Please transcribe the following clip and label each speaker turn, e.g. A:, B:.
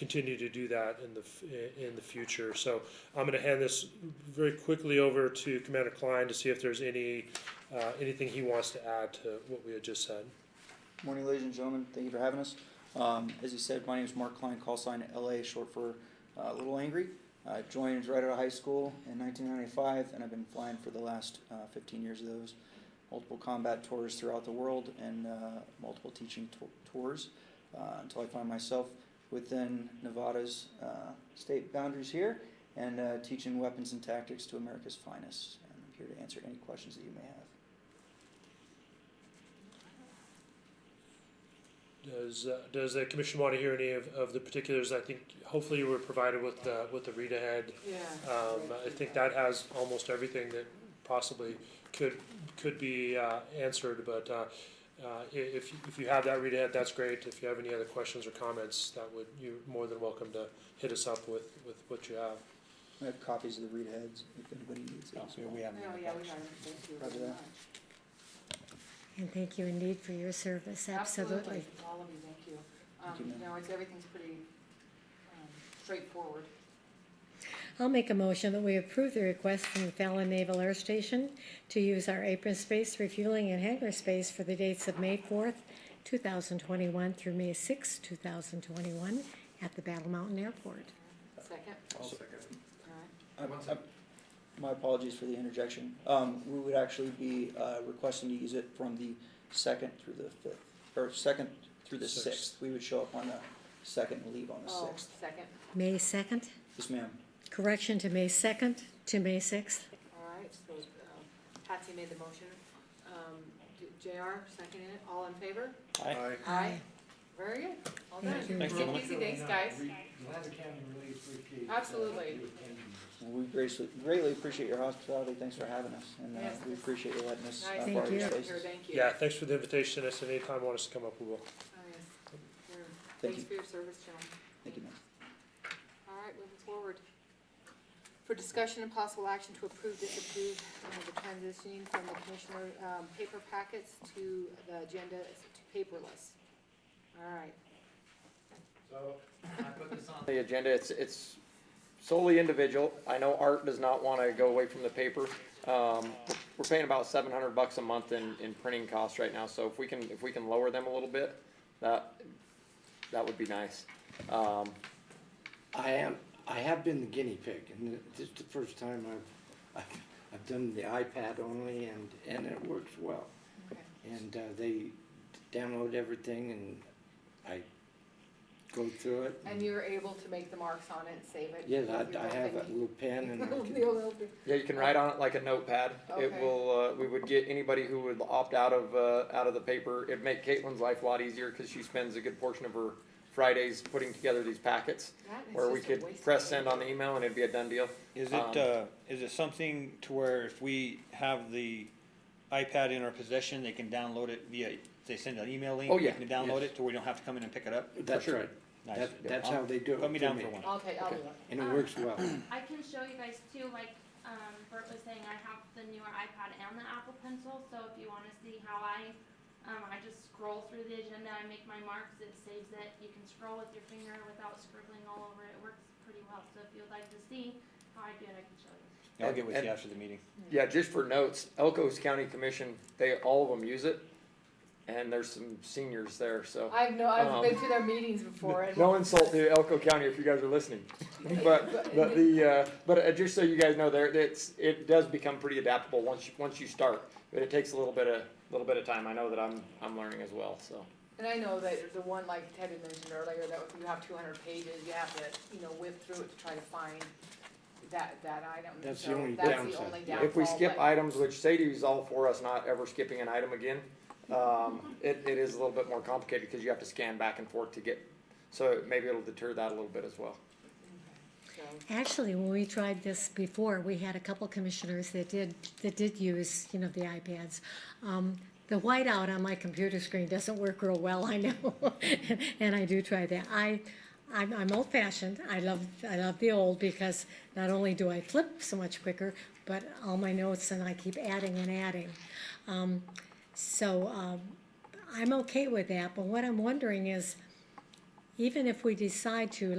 A: continue to do that in the, f- in the future. So I'm gonna hand this very quickly over to Commander Klein to see if there's any, uh, anything he wants to add to what we had just said.
B: Morning, ladies and gentlemen. Thank you for having us. Um, as you said, my name is Mark Klein, call sign LA, short for uh, Little Angry. I joined right out of high school in 1995, and I've been flying for the last uh, 15 years of those. Multiple combat tours throughout the world and uh, multiple teaching to- tours uh, until I find myself within Nevada's uh, state boundaries here and uh, teaching weapons and tactics to America's finest. And I'm here to answer any questions that you may have.
A: Does, uh, does the commission want to hear any of, of the particulars? I think hopefully you were provided with the, with the read ahead.
C: Yeah.
A: Um, I think that has almost everything that possibly could, could be, uh, answered, but, uh, uh, i- if, you- if you have that read ahead, that's great. If you have any other questions or comments, that would, you're more than welcome to hit us up with, with what you have.
B: I have copies of the read heads if anybody needs it. as well.
C: No, Oh, yeah, we are, thank you
B: Roger
C: very
B: that.
C: much.
D: And thank you indeed for your service, absolutely.
C: All of you, thank you.
B: Thank you,
C: Um,
B: ma'am.
C: no, it's, everything's pretty, um, straightforward.
D: I'll make a motion that we approve the request from Fallon Naval Air Station to use our apron space, refueling and hangar space for the dates of May fourth, two thousand twenty-one through May sixth, two thousand twenty-one at the Battle Mountain Airport.
C: Second,
E: I'll second.
C: all right,
B: I'm- I'm- My apologies for the interjection. Um, we would actually be, uh, requesting to use it from the second through the fifth, or second through the
A: Sixth.
B: sixth. We would show up on the second and leave on the
C: oh,
B: sixth.
C: second,
D: May second,
B: Yes, ma'am.
D: correction to May second to May sixth.
C: all right, so, um, Patsy made the motion. Um, J- JR seconded it, all in favor? Aye. Very good, all done.
D: Thank you.
E: Thanks,
C: Take
E: Mama.
C: it easy, thanks, guys.
E: You'll have a county release briefcase.
C: Absolutely.
E: Uh, with Kenji.
B: Well, We greatly, greatly appreciate your hospitality. Thanks for having us. And, uh,
C: Yes,
B: we
C: this-
B: appreciate you letting us, uh,
C: Nice to
D: Thank
B: borrow
C: meet you
B: your
D: you.
C: here,
B: spaces.
C: thank you.
A: Yeah, thanks for the invitation. If at any time want us to come up, we will.
C: Oh, yes. You're-
B: Thank
C: Thanks
B: you.
C: for your service, John.
B: Thank you, ma'am.
C: All right, moving forward. For discussion and possible action to approve, disapprove, uh, the transitioning from the commissioner, um, paper packets to the agenda to paperless. All right,
E: So, I put this on
F: the agenda, it's, it's solely individual. I know Art does not wanna go away from the paper. Um, we're paying about seven hundred bucks a month in, in printing costs right now, so if we can, if we can lower them a little bit, that, that would be nice. Um,
G: I am, I have been the guinea pig, and this is the first time I've, I've, I've done the iPad only, and, and it works well.
C: okay.
G: And, uh, they download everything, and I go through it.
C: And you're able to make the marks on it and save it?
G: Yes, I,
C: with your
G: I have a
C: little
G: little pen, and I
C: thingy?
G: can,
C: Your little thing.
F: Yeah, you can write on it like a notepad. It
C: Okay.
F: will, uh, we would get anybody who would opt out of, uh, out of the paper. It'd make Caitlin's life a lot easier, cause she spends a good portion of her Fridays putting together these packets,
C: That is
F: where we
C: just a
F: could
C: waste of
F: press
C: paper.
F: send on the email and it'd be a done deal.
H: Is
F: Um,
H: it, uh, is it something to where if we have the iPad in our possession, they can download it via, they send an email link?
F: Oh, yeah,
H: We can download
G: yes.
H: it to where we don't have to come in and pick it up?
G: that's right.
H: Nice.
G: That, that's
H: I'll-
G: how they do it.
H: Put me
G: for
H: down for one.
C: I'll take, I'll do
G: Okay.
C: it.
G: And it works well.
I: I can show you guys too, like, um, Bert was saying, I have the newer iPad and the Apple Pencil, so if you wanna see how I, um, I just scroll through the agenda, I make my marks, it saves it, you can scroll with your finger without scribbling all over it, it works pretty well, so if you'd like to see how I do it, I can show you.
H: I'll get with
F: And-
H: you after the meeting.
F: Yeah, just for notes, Elko's County Commission, they, all of them use it, and there's some seniors there, so.
C: I've no, I've
F: Um,
C: been to their meetings before and.
F: No insult to Elko County if you guys are listening, but, but the, uh, but uh, just so you guys know, there, it's, it does become pretty adaptable once you, once you start. But it takes a little bit of, little bit of time, I know that I'm, I'm learning as well, so.
C: And I know that the one, like Ted had mentioned earlier, that if you have two hundred pages, you have to, you know, whip through it to try to find that, that item.
G: That's the
C: So
G: only
C: That's the
G: downside.
C: only downfall.
F: If we skip
C: but-
F: items, which Sadie's all for us not ever skipping an item again, um, it, it is a little bit more complicated because you have to scan back and forth to get, so maybe it'll deter that a little bit as well.
C: So,
D: Actually, when we tried this before, we had a couple commissioners that did, that did use, you know, the iPads. Um, the whiteout on my computer screen doesn't work real well, I know, and I do try that. I, I'm, I'm old fashioned, I love, I love the old because not only do I flip so much quicker, but all my notes and I keep adding and adding. Um, so, um, I'm okay with that, but what I'm wondering is, even if we decide to,